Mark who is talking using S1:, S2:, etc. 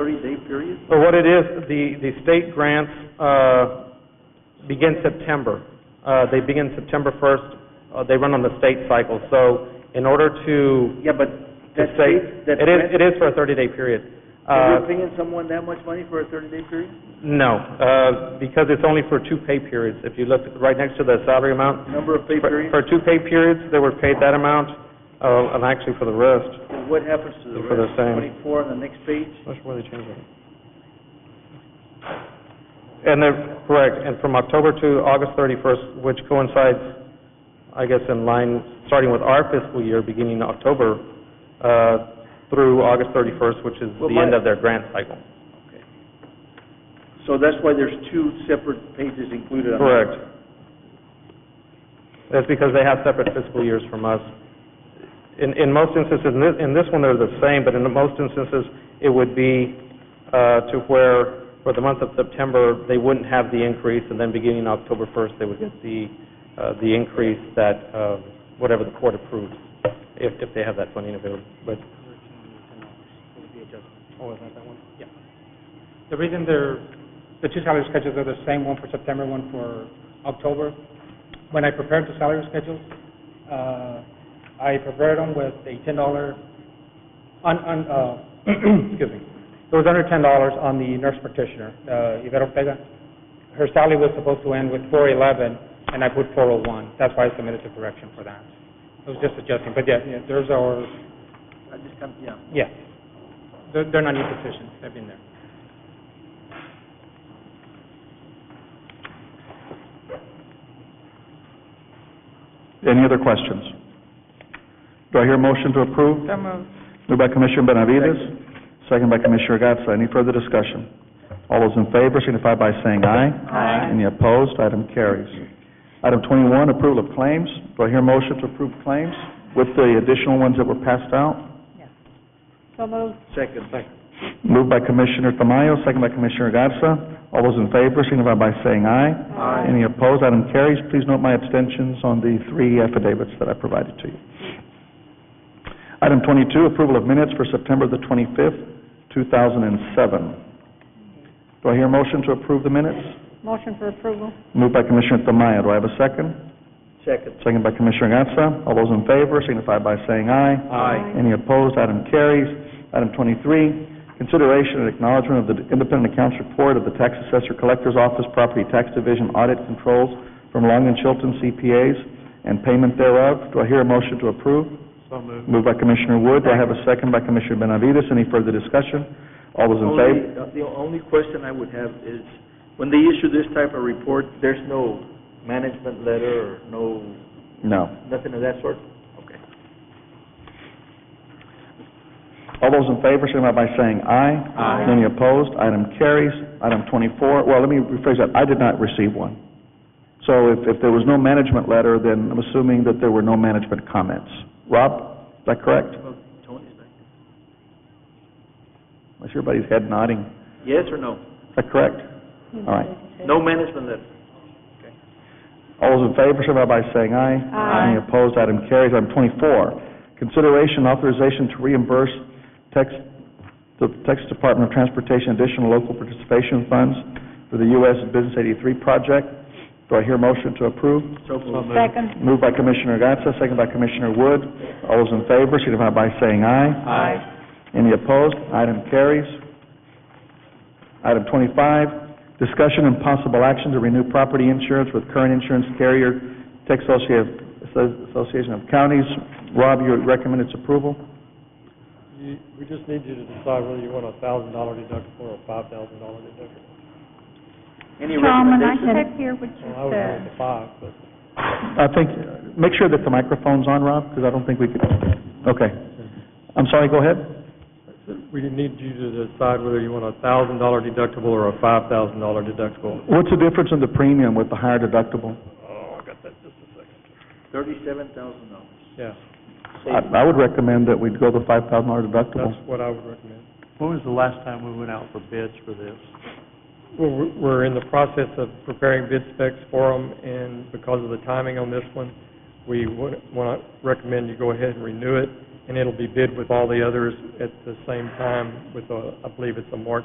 S1: 30-day period?
S2: So what it is, the, the state grants uh, begin September. Uh, They begin September 1st, uh, they run on the state cycle. So in order to,
S1: Yeah, but
S2: to
S1: that
S2: say,
S1: state, that
S2: it is,
S1: grant-
S2: it is for a 30-day period.
S1: Are
S2: Uh,
S1: you paying someone that much money for a 30-day period?
S2: No, uh, because it's only for two pay periods. If you look right next to the salary amount,
S1: Number of pay
S2: for
S1: periods?
S2: for two pay periods, they were paid that amount, uh, and actually for the rest.
S1: And what happens to the
S2: For the
S1: rest?
S2: same.
S1: 24 on the next page?
S2: Which were they changing? And they're, correct, and from October to August 31st, which coincides, I guess, in line, starting with our fiscal year, beginning October, uh, through August 31st, which is
S1: Well,
S2: the end
S1: my-
S2: of their grant cycle.
S1: Okay. So that's why there's two separate pages included on that.
S2: Correct. That's because they have separate fiscal years from us. In, in most instances, in this, in this one, they're the same, but in most instances, it would be uh, to where, for the month of September, they wouldn't have the increase, and then beginning October 1st, they would get the, uh, the increase that, uh, whatever the court approves, if, if they have that funding available. But
S3: Oh, is that that one? Yeah. The reason they're, the two salary schedules are the same, one for September, one for October. When I prepared the salary schedules, uh, I prepared them with a ten dollar, on, on, uh, excuse me, it was under ten dollars on the nurse practitioner, uh, Yvette Ortega. Her salary was supposed to end with four eleven, and I put four oh one, that's why I submitted the correction for that. It was just adjusting, but yeah, yeah, there's our,
S1: I just come, yeah.
S3: yeah, they're, they're not new positions, they've been there.
S4: Any other questions? Do I hear a motion to approve?
S5: So moved.
S4: Moved by Commissioner Benavides, second by Commissioner Gatsa. Any further discussion? All those in favor signify by saying aye.
S5: Aye.
S4: Any opposed? Item carries. Item twenty-one, approval of claims. Do I hear a motion to approve claims with the additional ones that were passed out?
S5: So moved.
S1: Second. Second.
S4: Moved by Commissioner Tamayo, second by Commissioner Gatsa. All those in favor signify by saying aye.
S5: Aye.
S4: Any opposed? Item carries. Please note my abstentions on the three affidavits that I provided to you. Item twenty-two, approval of minutes for September the twenty-fifth, two thousand and seven. Do I hear a motion to approve the minutes?
S5: Motion for approval.
S4: Moved by Commissioner Tamayo. Do I have a second?
S1: Second.
S4: Second by Commissioner Gatsa. All those in favor signify by saying aye.
S5: Aye.
S4: Any opposed? Item carries. Item twenty-three, consideration and acknowledgment of the independent accounts report of the tax assessor collector's office property tax division audit controls from Long and Chilton CPAs and payment thereof. Do I hear a motion to approve? So moved. Moved by Commissioner Wood. Do I have a second by Commissioner Benavides? Any further discussion? All those in favor?
S1: Only, uh, the only question I would have is, when they issue this type of report, there's no management letter or no,
S4: No.
S1: nothing of that sort? Okay.
S4: All those in favor, signify by saying aye.
S5: Aye.
S4: Any opposed? Item carries. Item twenty-four, well, let me rephrase that, I did not receive one. So if, if there was no management letter, then I'm assuming that there were no management comments. Rob, is that correct?
S1: Well, Tony's back.
S4: I see everybody's head nodding.
S1: Yes or no?
S4: Is that correct? All right.
S1: No management letter?
S4: All those in favor, signify by saying aye.
S5: Aye.
S4: Any opposed? Item carries. Item twenty-four, consideration authorization to reimburse Tex, the Texas Department of Transportation additional local participation funds for the U.S. Business eighty-three project. Do I hear a motion to approve?
S1: So moved.
S5: Second.
S4: Moved by Commissioner Gatsa, second by Commissioner Wood. All those in favor, signify by saying aye.
S1: Aye.
S4: Any opposed? Item carries. Item twenty-five, discussion and possible action to renew property insurance with current insurance carrier, Texas Associ- Association of Counties. Rob, you recommend its approval?
S6: You, we just need you to decide whether you want a thousand dollar deductible or a five thousand dollar deductible.
S1: Any
S5: Tom, when I
S1: recommendations?
S5: checked here, what you
S6: Well, I would go with
S5: said,
S6: the five, but
S4: I think, make sure that the microphone's on, Rob, because I don't think we could, okay. I'm sorry, go ahead.
S6: we need you to decide whether you want a thousand dollar deductible or a five thousand dollar deductible.
S4: What's the difference in the premium with the higher deductible?
S6: Oh, I got that just a second.
S1: Thirty-seven thousand dollars.
S6: Yeah,
S4: I, I would recommend that we'd go the five thousand dollar deductible.
S6: that's what I would recommend.
S7: When was the last time we went out for bids for this?
S6: We're, we're in the process of preparing bid specs for them, and because of the timing on this one, we want to recommend you go ahead and renew it
S2: and it'll be bid with all the others at the same time with, a- I believe it's a March